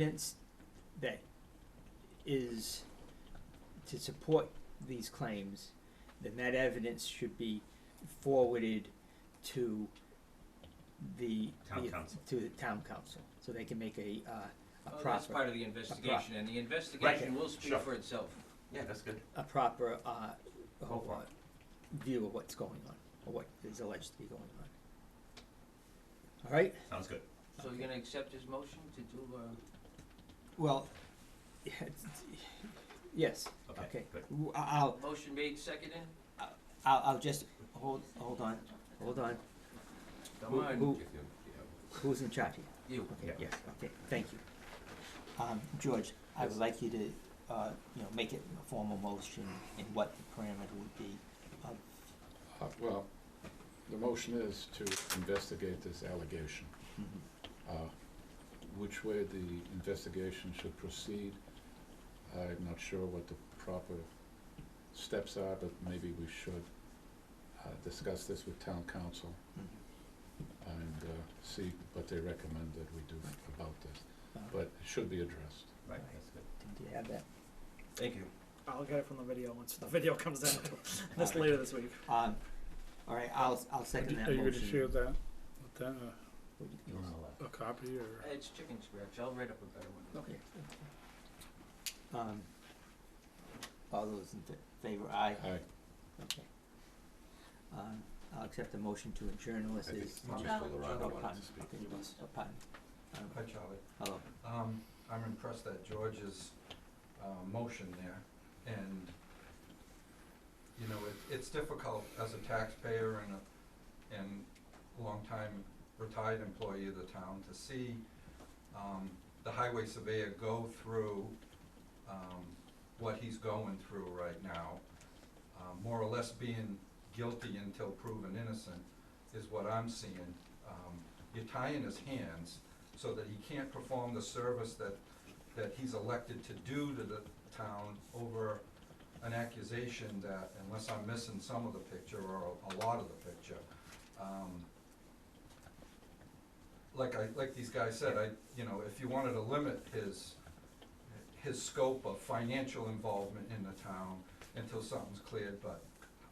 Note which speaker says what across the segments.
Speaker 1: evidence that is to support these claims, then that evidence should be forwarded to the.
Speaker 2: Town
Speaker 1: the-
Speaker 2: council.
Speaker 1: To the town council, so they can make a, uh, a
Speaker 3: Well, That's
Speaker 1: proper,
Speaker 3: part of the investigation, and the investigation will speak
Speaker 2: Sure.
Speaker 3: for itself.
Speaker 2: Yeah, that's good.
Speaker 1: a proper, uh,
Speaker 2: Go for
Speaker 1: uh, view of what's going on, or what is alleged to be going on. All right,
Speaker 2: Sounds good.
Speaker 3: So you're gonna accept his motion to do, uh,
Speaker 1: well, yes, okay.
Speaker 2: Good.
Speaker 1: W- I- I'll,
Speaker 3: motion made, seconded?
Speaker 1: I'll, I'll just, hold, hold on, hold on,
Speaker 3: Come
Speaker 1: Who- who-
Speaker 3: on,
Speaker 1: who's in charge here?
Speaker 3: you.
Speaker 1: Okay,
Speaker 2: Yeah.
Speaker 1: yes, okay, thank you. Um, George, I would like you to, uh, you know, make it a formal motion and what the parameter would be of,
Speaker 4: Uh, Well, the motion is to investigate this allegation,
Speaker 1: mhm,
Speaker 4: Uh, which way the investigation should proceed. I'm not sure what the proper steps are, but maybe we should uh, discuss this with town council
Speaker 1: mhm,
Speaker 4: and uh, see what they recommend that we do about this.
Speaker 1: uh,
Speaker 4: But it should be addressed.
Speaker 2: Right, that's good.
Speaker 1: Do you have that?
Speaker 2: Thank you.
Speaker 5: I'll get it from the video once the video comes out.
Speaker 1: That's
Speaker 5: That's later this week.
Speaker 1: Um, all right, I'll, I'll second that
Speaker 6: Are
Speaker 1: motion.
Speaker 6: you gonna share that, that,
Speaker 1: Would you-
Speaker 2: You're on the
Speaker 6: uh,
Speaker 2: left.
Speaker 6: a copy or?
Speaker 3: It's chicken scratch, I'll write up a better one.
Speaker 1: Okay. Um, all those in fa- favor, aye,
Speaker 4: I,
Speaker 1: okay. Um, I'll accept the motion to adjourn unless there's.
Speaker 3: Well, just for the
Speaker 1: Oh,
Speaker 3: round
Speaker 1: pardon, okay, yes, oh, pardon. Um,
Speaker 7: Hi, Charlie.
Speaker 1: Hello.
Speaker 7: Um, I'm impressed that George's, uh, motion there, and, you know, it, it's difficult as a taxpayer and a, and longtime retired employee of the town to see, um, the highway surveyor go through, um, what he's going through right now. Uh, more or less being guilty until proven innocent is what I'm seeing. Um, you're tying his hands so that he can't perform the service that, that he's elected to do to the town over an accusation that, unless I'm missing some of the picture or a lot of the picture, um, like I, like these guys said, I, you know, if you wanted to limit his, his scope of financial involvement in the town until something's cleared, but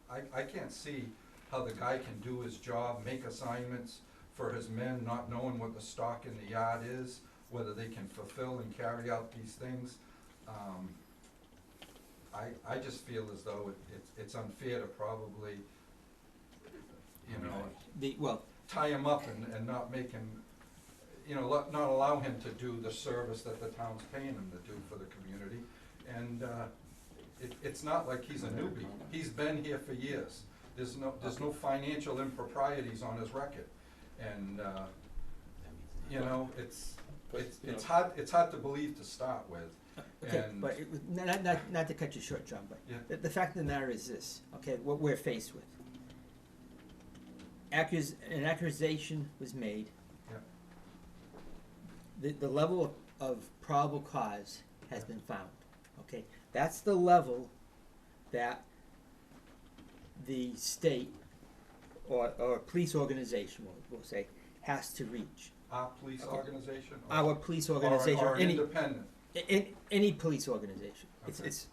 Speaker 7: I, I can't see how the guy can do his job, make assignments for his men, not knowing what the stock in the yard is, whether they can fulfill and carry out these things. Um, I, I just feel as though it- it's, it's unfair to probably, you know,
Speaker 1: The, well,
Speaker 7: tie him up and, and not make him, you know, lo- not allow him to do the service that the town's paying him to do for the community. And, uh, it, it's not like he's a newbie, he's been here for years, there's no, there's no financial improprieties on his record. And, uh, you know, it's,
Speaker 4: But,
Speaker 7: it's,
Speaker 4: you
Speaker 7: it's
Speaker 4: know-
Speaker 7: hard, it's hard to believe to start with,
Speaker 1: Okay,
Speaker 7: And-
Speaker 1: but it was, not, not, not to cut you short, John, but
Speaker 7: Yeah.
Speaker 1: the, the fact of the matter is this, okay, what we're faced with. Accus, an accusation was made.
Speaker 7: Yeah.
Speaker 1: The, the level of, of probable cause has been found, okay? That's the level that the state or, or police organization, we'll, we'll say, has to reach.
Speaker 7: our police
Speaker 1: Okay.
Speaker 7: organization. or-
Speaker 1: Our police
Speaker 7: or an-
Speaker 1: organization,
Speaker 7: Or
Speaker 1: or
Speaker 7: an
Speaker 1: any,
Speaker 7: independent,
Speaker 1: in any police organization. It's,
Speaker 7: Okay.
Speaker 1: it's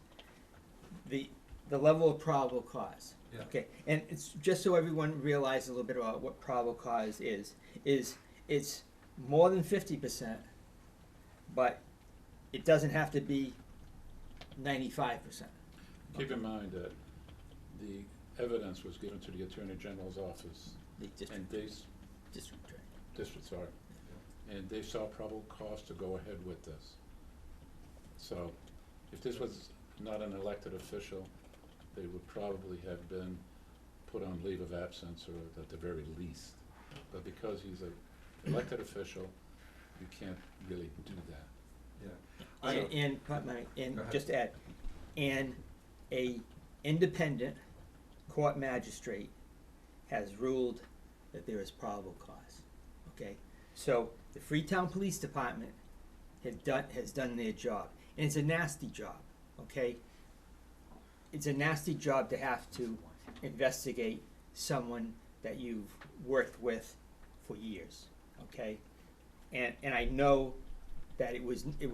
Speaker 1: the, the level of probable cause.
Speaker 7: Yeah.
Speaker 1: Okay, and it's, just so everyone realizes a little bit about what probable cause is, is it's more than fifty percent, but it doesn't have to be ninety-five percent.
Speaker 4: keep in mind that the evidence was given to the Attorney General's office,
Speaker 1: The district,
Speaker 4: and they s-
Speaker 1: district attorney.
Speaker 4: district, sorry, and they saw probable cause to go ahead with this. So if this was not an elected official, they would probably have been put on leave of absence or at the very least. But because he's an elected official, you can't really do that.
Speaker 7: yeah. I-
Speaker 1: And, and, pardon me, and
Speaker 7: Go ahead.
Speaker 1: just to add, and a independent court magistrate has ruled that there is probable cause, okay? So the Freetown Police Department have done, has done their job, and it's a nasty job, okay? It's a nasty job to have to investigate someone that you've worked with for years, okay? And, and I know that it was, it was